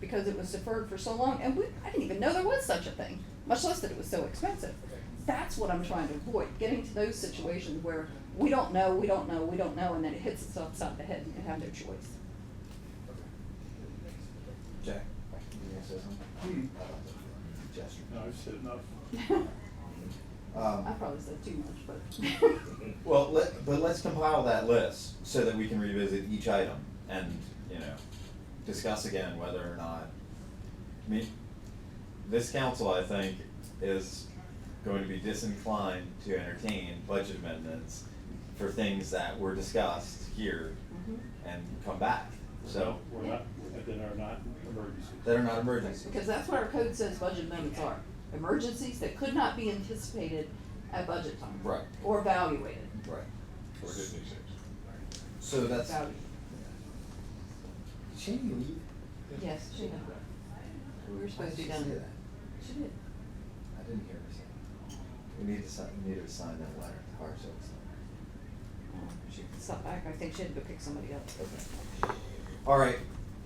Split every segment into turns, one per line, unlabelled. because it was deferred for so long, and we, I didn't even know there was such a thing, much less that it was so expensive. That's what I'm trying to avoid, getting to those situations where we don't know, we don't know, we don't know, and then it hits us upside the head and you have no choice.
Jack, you gonna say something? Chester.
No, I've said enough.
I
Um,
probably said too much, but.
well, let, but let's compile that list so that we can revisit each item and, you know, discuss again whether or not, I mean, this council, I think, is going to be disinclined to entertain budget amendments for things that were discussed here
Mhm.
and come back, so,
We're not, that are not emergencies.
that are not emergencies.
Because that's what our code says budget amendments are, emergencies that could not be anticipated at budget time.
Right.
Or evaluated,
Right.
Or Disney six.
So that's, did
evaluated,
Shane leave?
yes, she did. We were supposed to be
Why did
done
she say
with
that?
She did.
I didn't hear her say. that. We need to sign, we need to sign that letter, or so it's not.
She stopped back, I think she had to go pick somebody up.
Okay. All right,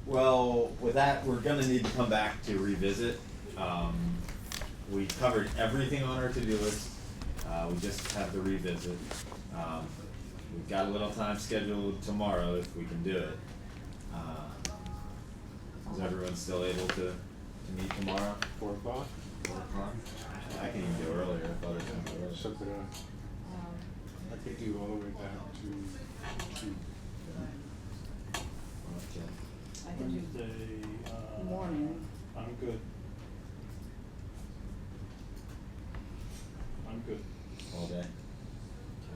well, with that, we're gonna need to come back to revisit. Um, we covered everything on our to-do list, uh, we just have the revisit. Um, we've got a little time scheduled tomorrow if we can do it. Uh, Is everyone still able to, to meet tomorrow?
Four o'clock?
Four o'clock? I can even go earlier, I thought it was gonna go earlier.
So could I,
Um,
I could do all the way back to, to
I can do
Wednesday, uh.
morning,
I'm good. I'm good,
All day.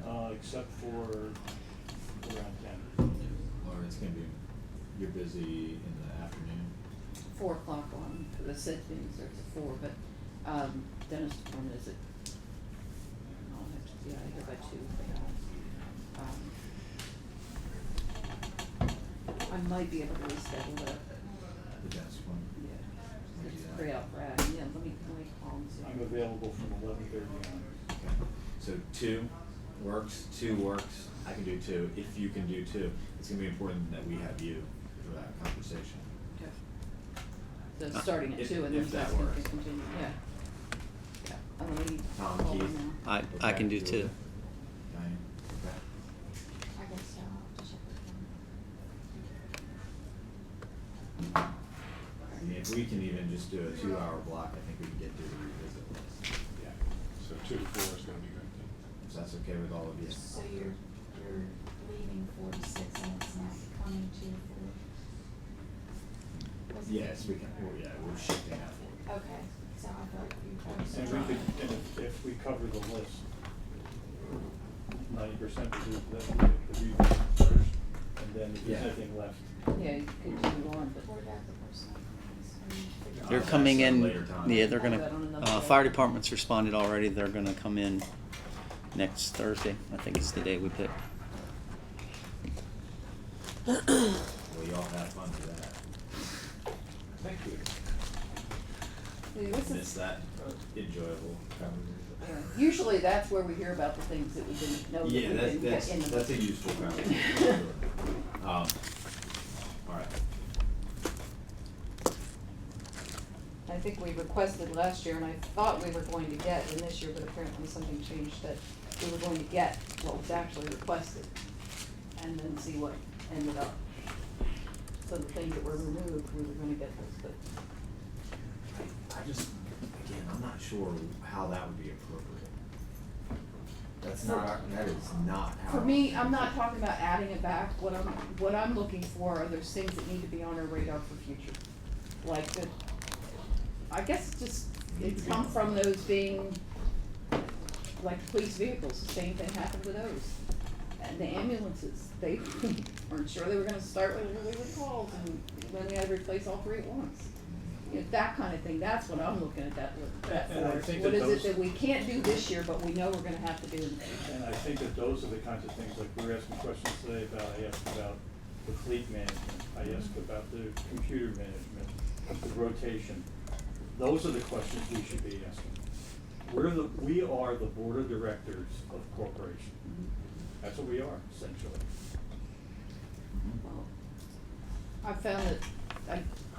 uh, except for around ten.
Or it's gonna be, you're busy in the afternoon.
four o'clock on, the said things, there's a four, but, um, Dennis, when is it? I'll have to, yeah, I hear by two, but, um, um, I might be able to reschedule that,
The desk one.
yeah.
We'll do
It's
that.
pretty out right, yeah, let me, let me call and see.
I'm available from eleven thirty on.
So two works, two works, I can do two, if you can do two. It's gonna be important that we have you for that conversation.
Okay. So starting at
Uh, If-
two and
if
then
that
that's gonna
works.
continue, yeah. Yeah, I'm gonna leave.
Tom,
call
Keith.
now.
I, I
Okay,
can do
it.
two.
Diane, okay.
I guess so. I'll have to check with them.
I mean, if we can even just do a two-hour block, I think we can get through the revisit list.
Yeah. So two to four is gonna be good.
If that's okay with all of you.
So you're, you're leaving four to six and it's not coming to four? Wasn't it?
Yes, we can, well, yeah, we're shifting that forward.
Okay, so I thought you told us.
And we could, and if, if we cover the list, ninety percent of the, the, the revision first, and then if
Yeah.
there's anything left.
Yeah, you continue on, but.
What about the personal things? Are you figuring
They're
out-
coming
that's a
in,
Uh, later time.
yeah, they're
Put that on
gonna,
another
uh,
day.
fire department's responded already, they're gonna come in next Thursday, I think it's the day we pick.
Well, y'all have fun with that. Thank you.
See, This is
Miss that enjoyable
Yeah,
conversation.
Usually that's where we hear about the things that we didn't know that we
Yeah, that's,
didn't
that's,
get in the.
that's a useful conversation. for sure. Um, alright,
I think we requested last year and I thought we were going to get in this year, but apparently something changed that we were going to get what was actually requested. And then see what ended up. So the things that were removed, we were gonna get those, but
I just, again, I'm not sure how that would be appropriate. That's not, that is not how.
for me, I'm not talking about adding it back. What I'm, what I'm looking for are those things that need to be on our radar for future. Like the, I guess it's just, it's come from those being, like police vehicles, the same thing happened with those. And the ambulances, they weren't sure they were gonna start with really calls and then they had to replace all three at once. You know, that kind of thing, that's what I'm looking at that, that
And- and I
for.
think
What
that
is
those-
it that we can't do this year, but we know we're gonna have to do in the future?
And I think that those are the kinds of things, like we were asking questions today about, I asked about the fleet management, I asked about the computer management, the rotation. Those are the questions we should be asking. We're the, we are the board of directors of corporation.
Mm-hmm.
That's what we are essentially.
Well, I found that I